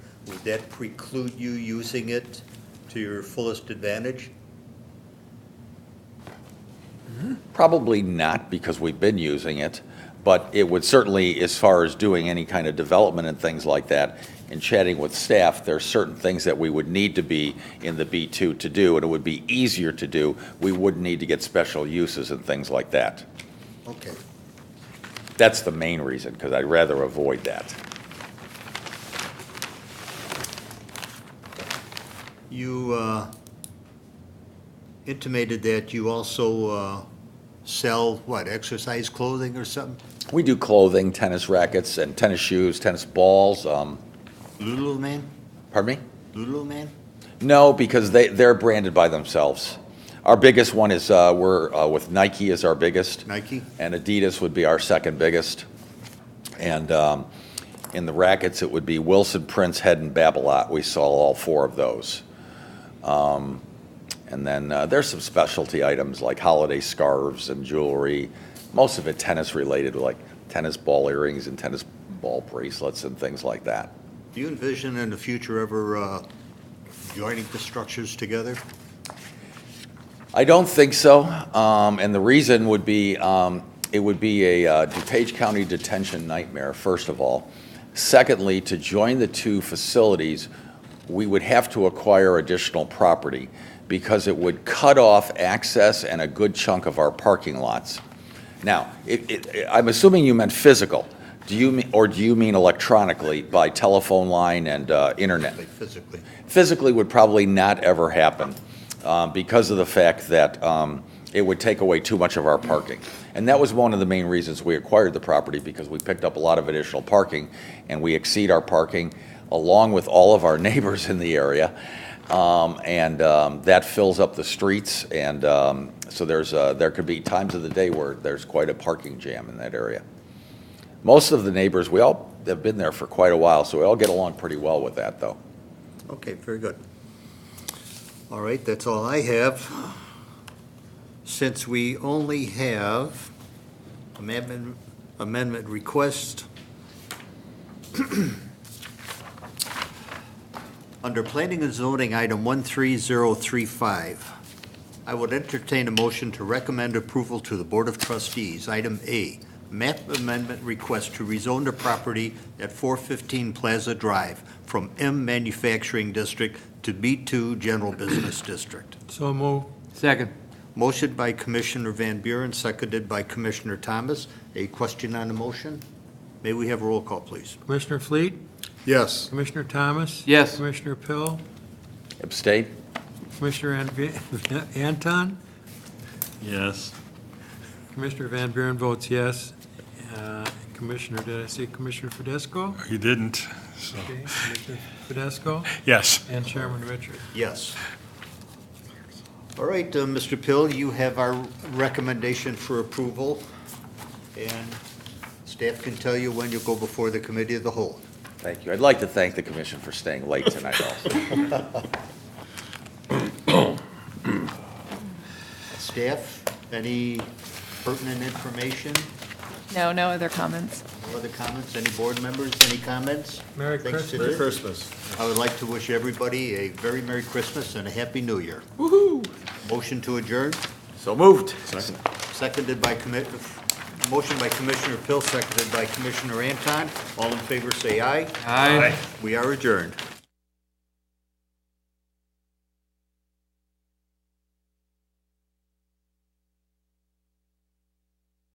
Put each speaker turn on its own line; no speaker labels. Would that preclude you using it to your fullest advantage?
Probably not, because we've been using it, but it would certainly, as far as doing any kind of development and things like that, and chatting with staff, there are certain things that we would need to be in the B2 to do, and it would be easier to do. We wouldn't need to get special uses and things like that.
Okay.
That's the main reason, because I'd rather avoid that.
You uh, intimated that you also uh, sell, what, exercise clothing or something?
We do clothing, tennis rackets, and tennis shoes, tennis balls, um,
Lululemon?
pardon me?
Lululemon?
No, because they, they're branded by themselves. Our biggest one is, uh, we're, uh, with Nike is our biggest.
Nike?
And Adidas would be our second biggest. And um, in the rackets, it would be Wilson, Prince, Head, and Babolat. We saw all four of those. Um, And then uh, there's some specialty items like holiday scarves and jewelry, most of it tennis-related, like tennis ball earrings and tennis ball bracelets and things like that.
Do you envision in the future ever uh, joining the structures together?
I don't think so. Um, and the reason would be, um, it would be a uh, DuPage County detention nightmare, first of all. Secondly, to join the two facilities, we would have to acquire additional property because it would cut off access and a good chunk of our parking lots. Now, it, it, I'm assuming you meant physical. Do you, mean- or do you mean electronically by telephone line and, uh, internet?
Like physically?
physically would probably not ever happen um, because of the fact that um, it would take away too much of our parking. And that was one of the main reasons we acquired the property, because we picked up a lot of additional parking, and we exceed our parking along with all of our neighbors in the area. Um, And um, that fills up the streets, and um, so there's, uh, there could be times of the day where there's quite a parking jam in that area. Most of the neighbors, we all have been there for quite a while, so we all get along pretty well with that, though.
Okay, very good. All right, that's all I have. Since we only have amendment, amendment request, under planning and zoning, item 13035, I would entertain a motion to recommend approval to the Board of Trustees. Item A, map amendment request to rezone the property at 415 Plaza Drive from M Manufacturing District to B2 General Business District.
So move.
Second.
Motion by Commissioner Van Buren, seconded by Commissioner Thomas. A question on the motion? May we have a roll call, please?
Commissioner Fleet? Yes. Commissioner Thomas?
Yes.
Commissioner Pill?
Abstain?
Commissioner An- Anton?
Yes.
Commissioner Van Buren votes yes. Uh, Commissioner, did I see Commissioner Fidesco?
You didn't, so,
Okay, Commissioner Fidesco
yes.
and Chairman Richard.
Yes. All right, uh, Mr. Pill, you have our recommendation for approval, and staff can tell you when you go before the committee of the whole.
Thank you. I'd like to thank the commission for staying late tonight also.
Staff, any pertinent information,
No, no other comments.
other comments, any board members, any comments?
Merry
Things to
Christmas.
do? I would like to wish everybody a very Merry Christmas and a Happy New Year. Woo-hoo! Motion to adjourn?
So moved.
Seconded by commit, motion by Commissioner Pill, seconded by Commissioner Anton. All in favor, say aye.
Aye.
We are adjourned.